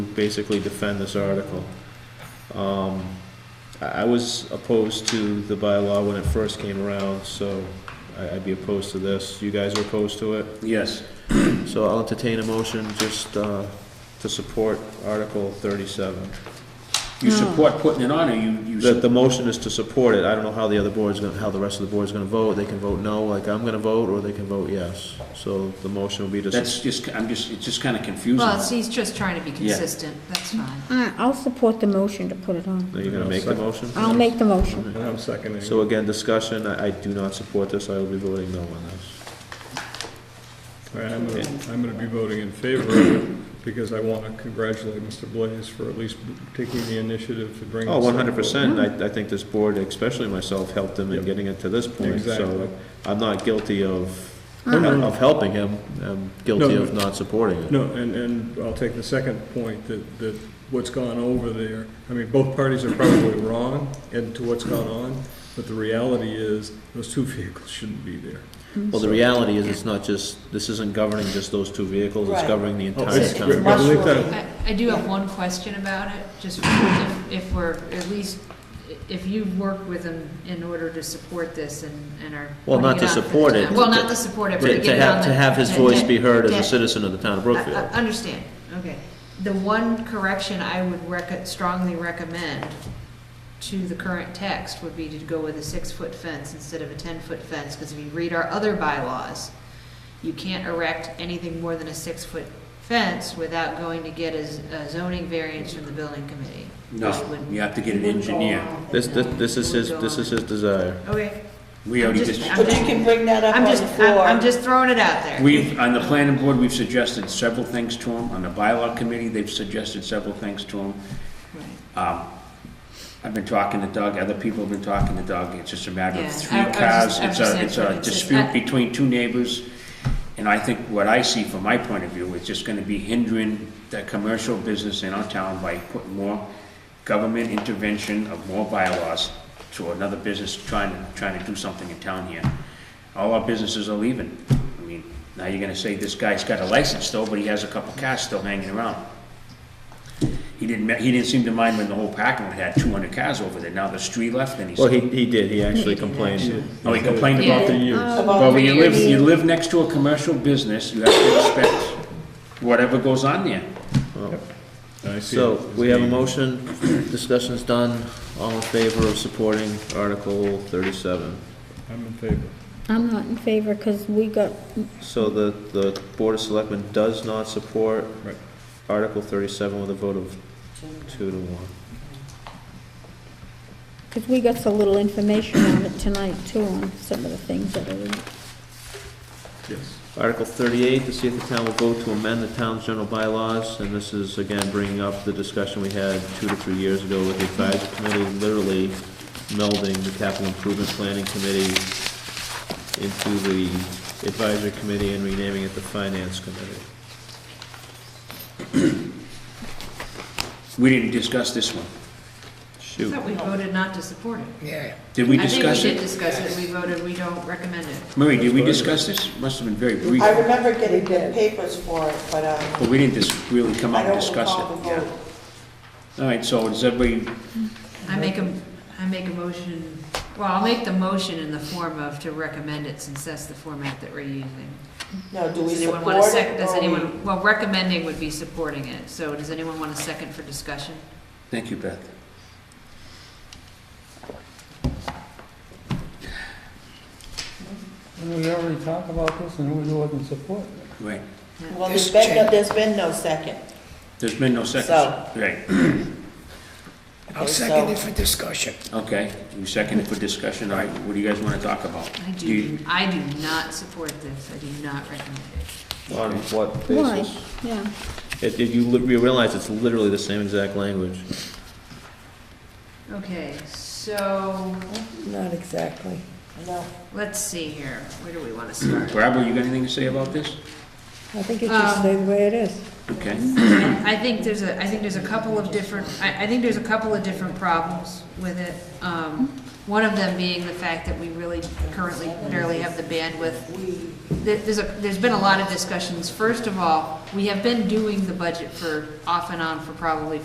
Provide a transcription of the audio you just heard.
basically defend this article. Um, I I was opposed to the bylaw when it first came around, so I- I'd be opposed to this. You guys are opposed to it? Yes. So I'll entertain a motion just uh, to support Article 37. You support putting it on, or you, you, The, sup- the motion is to support it. I don't know how the other board's gonna, how the rest of the board's gonna vote. They can vote no, like I'm gonna vote, or they can vote yes. So the motion will be to, su- that's just, I'm just, it's just kinda Well, it's- confusing. he's just trying to be Yeah. consistent, that's fine. All right, I'll support the motion to put it on. are you gonna make the motion? I'll make the motion. And I'm seconding. So again, discussion, I, I do not support this. I will be voting no on this. All right, I'm gonna, I'm gonna be voting in favor of it, because I wanna congratulate Mr. Blaze for at least taking the initiative to bring. Oh, this up. one hundred percent. I, I think this board, especially myself, helped him in Yep. getting it to this point, Exactly. so I'm not guilty of, No, no. of helping him. I'm guilty No. of not supporting it. No, and, and I'll take the second point, that, that what's gone over there, I mean, both parties are probably wrong and to what's gone on, but the reality is, those two vehicles shouldn't be there. Well, the reality is, it's not just, this isn't governing just those two vehicles, it's Right. governing the Oh, entire it's- It's town. Right. believe that- mushrooming. I, I do have one question about it, just if, if we're, at least, if you've worked with him in order to support this and, and are. Well, not putting to out for the support it, town- Well, to- not to support it, but to To, get to it on have, the. to have his voice be heard as Yeah. a citizen of the town of I- I Brookfield. Understand, okay. The one correction I would rec, strongly recommend to the current text would be to go with a six-foot fence instead of a ten-foot fence, because if you read our other bylaws, you can't erect anything more than a six-foot fence without going to get a z- a zoning variance from the building committee. which No, would- you have to get an engineer. This, this, this is his, this is his desire. Okay, We already I'm just- just, I'm But you can bring that up on I'm the just, I'm, floor. I'm just throwing it out there. we've, on the planning board, we've suggested several things to them. On the bylaw committee, they've suggested several things to them. Right. Um, I've been talking to Doug, other people have been talking to Doug, it's just a matter Yeah, of I- three I was cars. just- I was It's just a, saying it's for a the- just- dispute I- between two neighbors, and I think what I see from my point of view, it's just gonna be hindering the commercial business in our town by putting more government intervention of more bylaws to another business trying, to trying to do something in town here. All our businesses are leaving. I mean, now you're gonna say this guy's got a license though, but he has a couple cars still hanging around. He didn't, ma- he didn't seem to mind when the whole parking lot had two hundred cars over there, now there's three left, and he's, Well, he, he did, he actually complained. oh, he complained about the. Uh, About Well, when you live, years. you live next to a commercial business, you have to expect whatever goes on there. I see So, it as we have a being- motion, discussion's done, all in favor of supporting Article thirty-seven. I'm in favor. I'm not in favor because we got, So the, the Board of Selectmen does not support Right. Article thirty-seven with a vote of two to one. because we got so little information on it tonight too, on some of the things that are in it. Yes. Article thirty-eight, to see if the town will vote to amend the town's general bylaws, and this is again bringing up the discussion we had two to three years ago with the advisory committee, literally melding the capital improvement planning committee into the advisory committee and renaming it the finance committee. We didn't discuss this one. I Shoot, thought we voted not to support it. Did we I think discuss we did it? discuss it, we voted, we don't recommend it. Murray, did we discuss this? Must have been very brief, I remember getting the papers for it, but, um, but we didn't dis- really come I out and don't discuss recall the it. vote. All right, so does everybody, I make a, I make a motion, well, I'll make the motion in the form of to recommend it since that's the format that we're using. No, do we Does anyone support want to sec, it? does or we- anyone, well, recommending would be supporting it, so does anyone want a second for discussion? thank you, Beth. We already talked about this and we wasn't supporting it. Right, Well, there's been, no- there's been no second. there's been no seconds. So- Right, Okay, I'll second so- it for discussion. okay, you seconded for discussion, all right, what do you guys want to talk about? I Do do, you- I do not support this, I do not recommend it. on what Why? basis? Yeah. It, it- you li- you realize it's literally the same exact language. Okay, so, Not exactly. No. let's see here, where do we want to start? Barbara, you got anything to say about this? I think it should Um, stay the way it is. Okay, I think there's a, I think there's a couple of different, I, I think there's a couple of different problems with it. Um, one of them being the fact that we really currently barely have the bandwidth. There- There's a, there's been a lot of discussions. First of all, we have been doing the budget for, off and on for probably